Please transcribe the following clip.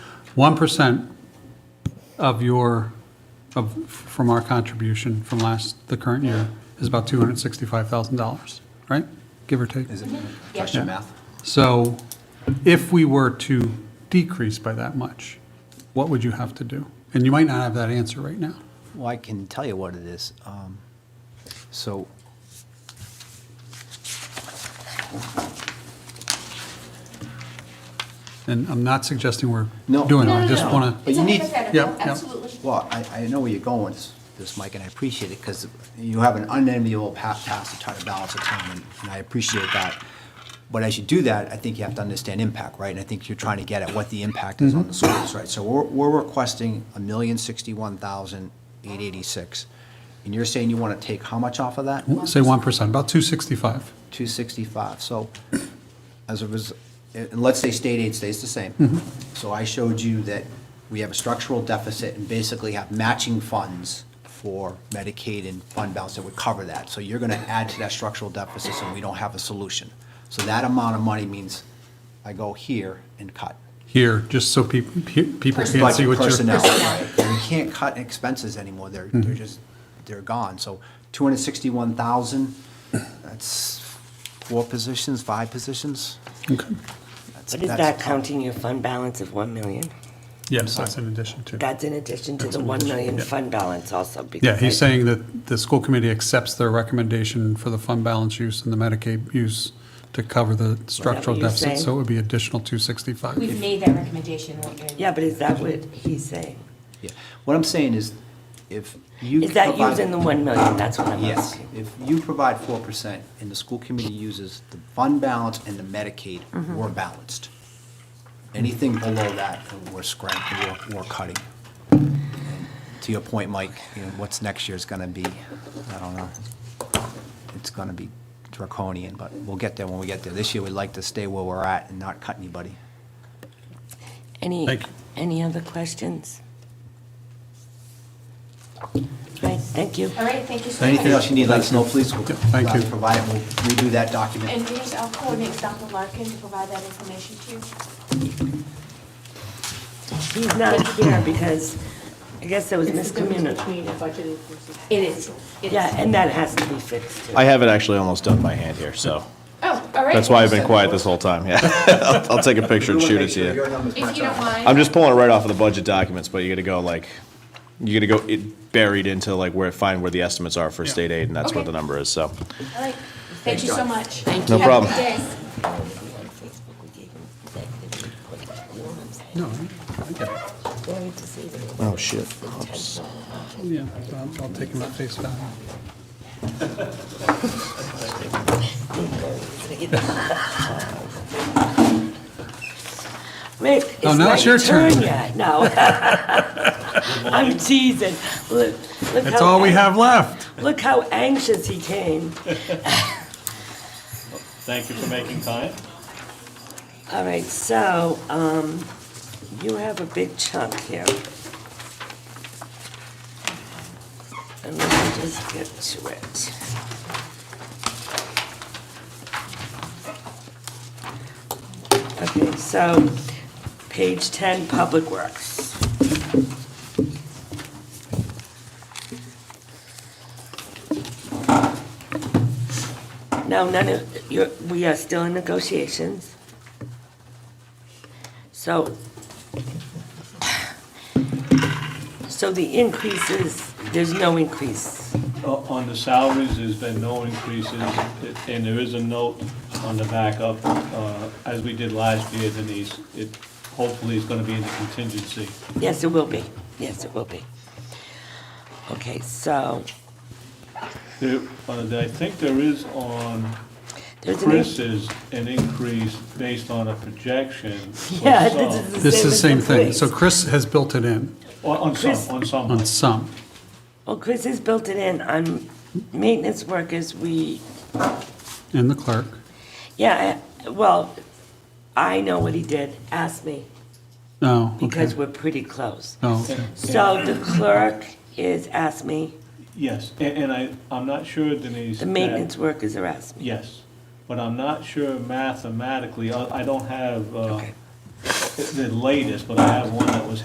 1% of your, of, from our contribution from last, the current year, is about $265,000, right? Give or take. Is it question math? So if we were to decrease by that much, what would you have to do? And you might not have that answer right now. Well, I can tell you what it is. Um, So. And I'm not suggesting we're No. doing it. No, I no, just no. want to, But It's you a need- yeah, hypothetical, yeah. absolutely. Well, I, I know where you're going with this- this, Mike, and I appreciate it, because you have an unenviable pa- task to try to balance the time, and- and I appreciate that. But as you do that, I think you have to understand impact, right? And I think you're trying to get at what the impact is on the schools, right? So we're, we're requesting a million sixty-one thousand eight eighty-six, and you're saying you want to take how much off of that? say 1%, about 265. 265. So as a result, and let's say state aid stays the same. So I showed you that we have a structural deficit and basically have matching funds for Medicaid and fund balance that would cover that. So you're going to add to that structural deficit, so we don't have a solution. So that amount of money means I go here and cut. Here, just so people, people can see Budget what you're. personnel, right? You can't cut expenses anymore, they're, they're just, they're gone. So two hundred sixty-one thousand, that's four positions, five positions? That's- But that's is that tough. counting your fund balance of 1 million? Yes, that's in addition to. That's in addition to the 1 million fund balance also? because Yeah, he's I- saying that the school committee accepts their recommendation for the fund balance use and the Medicaid use to cover the structural you're deficit, so it saying? would be additional 265. We've made that recommendation. Yeah, but is that what he's saying? Yeah. What I'm saying is, if you. Is that provide- using the 1 million? That's what I'm Yes, asking. if you provide four percent and the school committee uses the fund balance and the Medicaid, we're balanced. Anything below that, we're scrambling, we're, we're cutting. To your point, Mike, you know, what's next year's gonna be, I don't know. It's gonna be draconian, but we'll get there when we get there. This year, we'd like to stay where we're at and not cut anybody. Any, Thank you. any other questions? Right, thank you. All right, thank you so much. Anything else you need, let us know, please. We'll Yeah, thank you. Provide it, we'll redo that document. And here's, I'll coordinate with Dr. Larkin to provide that information to you. He's not here because I guess there was It's the difference miscommunication. between a budget increase and. It is, it Yeah, is. and that has to be fixed too. I have it actually almost done by hand here, so Oh, all right. that's why I've been quiet this whole time. Yeah, I'll, I'll take a picture and shoot it to you. If you don't mind. I'm just pulling it right off of the budget documents, but you got to go like, you got to go it buried into like where find where the estimates are for state aid, and that's where Okay. the number is. So All right, thank you so much. Thank No you. problem. Have a good day. No, I get it. oh shit, Yeah, I'll I'll take him at face value. Wait, it's Oh, now it's not your your turn. turn yet, no. I'm teasing. Look, look That's how all we ang- have left. Look how anxious he came. Thank you for making time. All right, so, um, you have a big chunk here. And let me just get to it. Okay, so, page ten, Public Works. Now, none of, you're, we are still in negotiations. So, so the increases, there's no increase. Uh, On the salaries, there's been no increases, and there is a note on the back up, uh, as we did last year, Denise, it hopefully is gonna be in the contingency. Yes, it will be. Yes, it will be. Okay, so There, uh, I think there is on there's an. in- Chris's an increase based on a projection. for Yeah, some. this This is the is the same. same as thing. the So police. Chris has built it in On on Chris- some, on some. on some. Well, Chris has built it in on maintenance workers, we, And the clerk, yeah, I- well, I know what he did, ask me, no, Oh, okay. because we're pretty close. Oh, okay. So the clerk is ask me, Yes, a- and I, I'm not sure, Denise. the that- maintenance workers are ask me. Yes, but I'm not sure mathematically, I I don't have uh, Okay. the latest, but I have one that